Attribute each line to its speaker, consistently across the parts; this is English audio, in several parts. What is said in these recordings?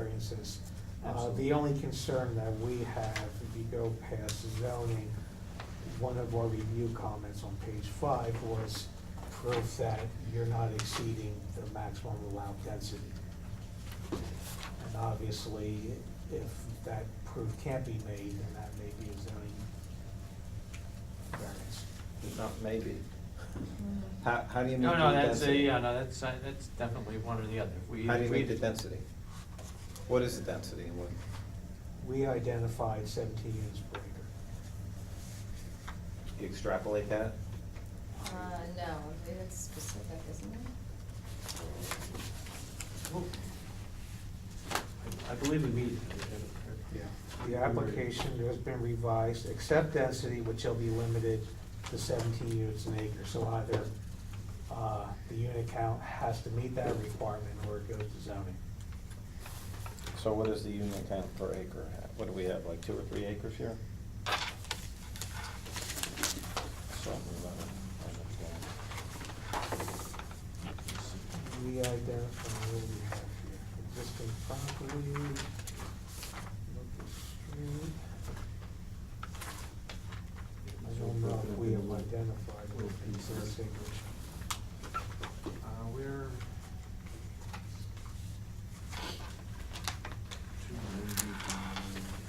Speaker 1: variances. Uh,
Speaker 2: Absolutely.
Speaker 1: The only concern that we have, if you go past zoning, one of our review comments on page five was proof that you're not exceeding the maximum allowed density. And obviously, if that proof can't be made, then that may be a zoning variance.
Speaker 2: Not maybe. How, how do you meet the
Speaker 3: No, no, that's, a-
Speaker 2: density?
Speaker 3: yeah, no, that's, uh, that's definitely one or the other. We-
Speaker 2: How do you
Speaker 3: we-
Speaker 2: meet the density? What is the density and what?
Speaker 1: We identified seventeen units per acre.
Speaker 2: You extrapolate that?
Speaker 4: Uh, no, it's specific, isn't it?
Speaker 3: I believe we meet. it.
Speaker 1: The application has been revised, except density, which shall be limited to seventeen units an acre. So either, uh, the unit count has to meet that requirement or it goes to zoning.
Speaker 2: So what is the unit count per acre? What do we have, like two or three acres here?
Speaker 1: We identify what we have here, existing property, local street. I don't know if we have identified what piece of
Speaker 3: Uh, we're.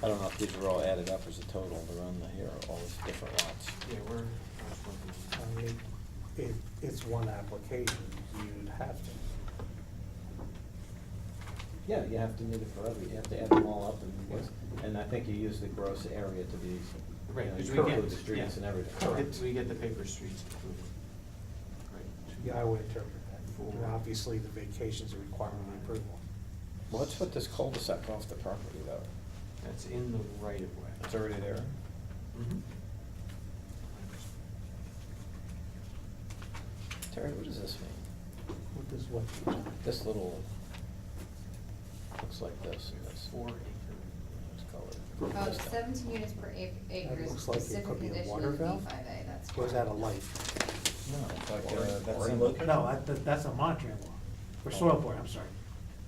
Speaker 5: I don't know if these are all added up as a total, they're on the, here, are all these different lots.
Speaker 3: Yeah, we're.
Speaker 1: I mean, it, it's one application, you'd have to.
Speaker 2: Yeah, you have to meet it for every, you have to add them all up and, what's- and I think you use the gross area to be, you
Speaker 3: Right,
Speaker 2: know,
Speaker 3: because
Speaker 2: you
Speaker 3: we get.
Speaker 2: include the streets and
Speaker 3: yeah.
Speaker 2: everything.
Speaker 1: Correct.
Speaker 3: We get the paper streets included. Right.
Speaker 1: Yeah, I would interpret that. And obviously, the vacation's a requirement of approval.
Speaker 5: Let's put this cul-de-sac off the property though.
Speaker 3: That's in the right of way.
Speaker 5: It's already there.
Speaker 3: Mhm.
Speaker 5: Terry, what does this mean?
Speaker 1: What does what?
Speaker 5: This little, looks like this and this.
Speaker 3: Four acre.
Speaker 5: Let's call it-
Speaker 4: Oh,
Speaker 5: this
Speaker 4: it's
Speaker 5: thing.
Speaker 4: seventeen units per ac- acre,
Speaker 1: looks like it
Speaker 4: specific
Speaker 1: could be a
Speaker 4: condition
Speaker 1: water
Speaker 4: of B
Speaker 1: valve.
Speaker 4: five A, that's.
Speaker 1: Or is that a
Speaker 4: correct.
Speaker 1: light?
Speaker 5: No, it's like,
Speaker 2: Or-
Speaker 5: uh, that's.
Speaker 2: or
Speaker 5: in-
Speaker 2: look-
Speaker 1: No, that- that- that's a Montreal law, or soil board, I'm sorry.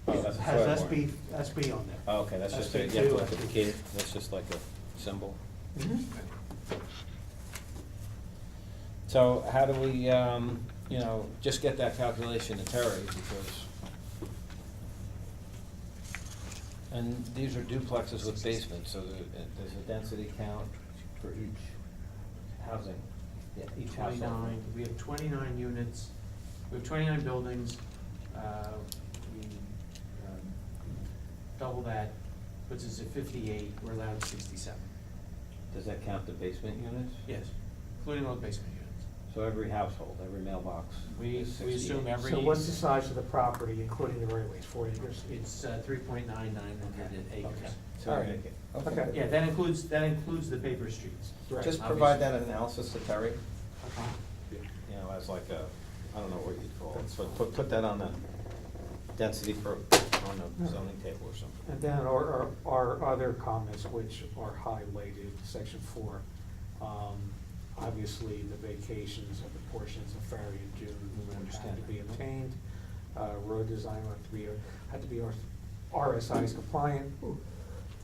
Speaker 5: Oh, that's a soil
Speaker 1: Has
Speaker 5: board.
Speaker 1: SB, SB on there.
Speaker 5: Oh, Okay, that's just, a- you
Speaker 1: SB
Speaker 5: have to
Speaker 1: two,
Speaker 5: look at the
Speaker 1: SB.
Speaker 5: key, that's just like a symbol.
Speaker 1: Mhm.
Speaker 5: So how do we, um, you know, just get that calculation to Terry because, and these are duplexes with basements, so there- there's a density count for each housing, yeah, each household.
Speaker 3: Twenty-nine, we have twenty-nine units, we have twenty-nine buildings, uh, we, um, double that, puts us at fifty-eight, we're allowed sixty-seven.
Speaker 5: Does that count the basement units?
Speaker 3: Yes, including all the basement units.
Speaker 5: So every household, every mailbox
Speaker 3: We,
Speaker 5: is
Speaker 3: we assume
Speaker 5: 68.
Speaker 3: every.
Speaker 1: So what's the size of the property, including the right of ways, four acres?
Speaker 3: It's, uh, three point nine nine one
Speaker 5: Okay,
Speaker 3: hundred
Speaker 5: okay.
Speaker 3: acres.
Speaker 5: So
Speaker 1: All right.
Speaker 5: make it-
Speaker 1: Okay.
Speaker 3: Yeah, that includes, that includes the paper streets.
Speaker 1: Right.
Speaker 2: Just provide that analysis to Terry,
Speaker 3: Okay.
Speaker 2: you know, as like a, I don't know what you'd call it, so put, put that on the density for, on the zoning table or something.
Speaker 1: And then our, our our other comments, which are highlighted, section four, um, obviously, the vacations of the portions of February and June would have
Speaker 5: Understand.
Speaker 1: to be obtained. Uh, Road design would have to be, had to be RSI's compliant,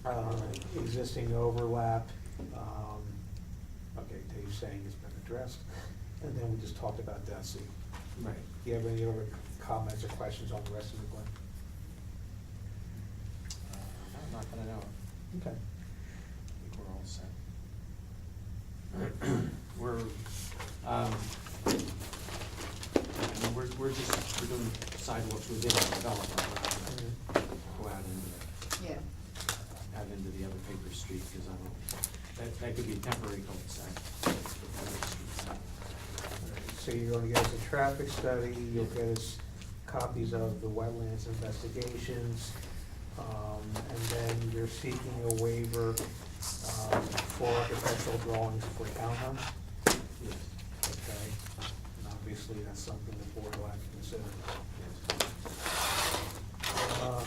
Speaker 1: uh, existing overlap. um, Okay, Dave's saying it's been addressed, and then we just talked about density.
Speaker 3: Right.
Speaker 1: Do you have any other comments or questions on the rest of the Glenn?
Speaker 3: Uh, I'm not gonna know, I
Speaker 1: Okay.
Speaker 3: think we're all set. We're, um, I mean, we're, we're just, we're doing sidewalks within the development, we're not gonna go out into,
Speaker 4: Yeah,
Speaker 3: the- out into the other paper street, cause I don't, that, that could be temporary cul-de-sac.
Speaker 1: So you're gonna get us a traffic study, you'll get us copies of the wetlands investigations, um, and then you're seeking a waiver, um, for architectural drawings for townhomes,
Speaker 3: Yes,
Speaker 1: okay? And obviously, that's something the board will have to consider.
Speaker 3: yes.
Speaker 1: Uh,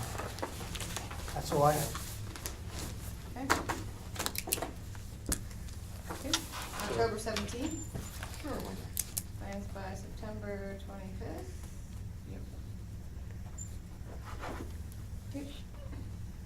Speaker 1: That's all I have.
Speaker 4: okay. Good. October seventeenth,
Speaker 3: Sure, why not?
Speaker 4: plans by September twenty-fifth.
Speaker 3: Yep.
Speaker 4: Good.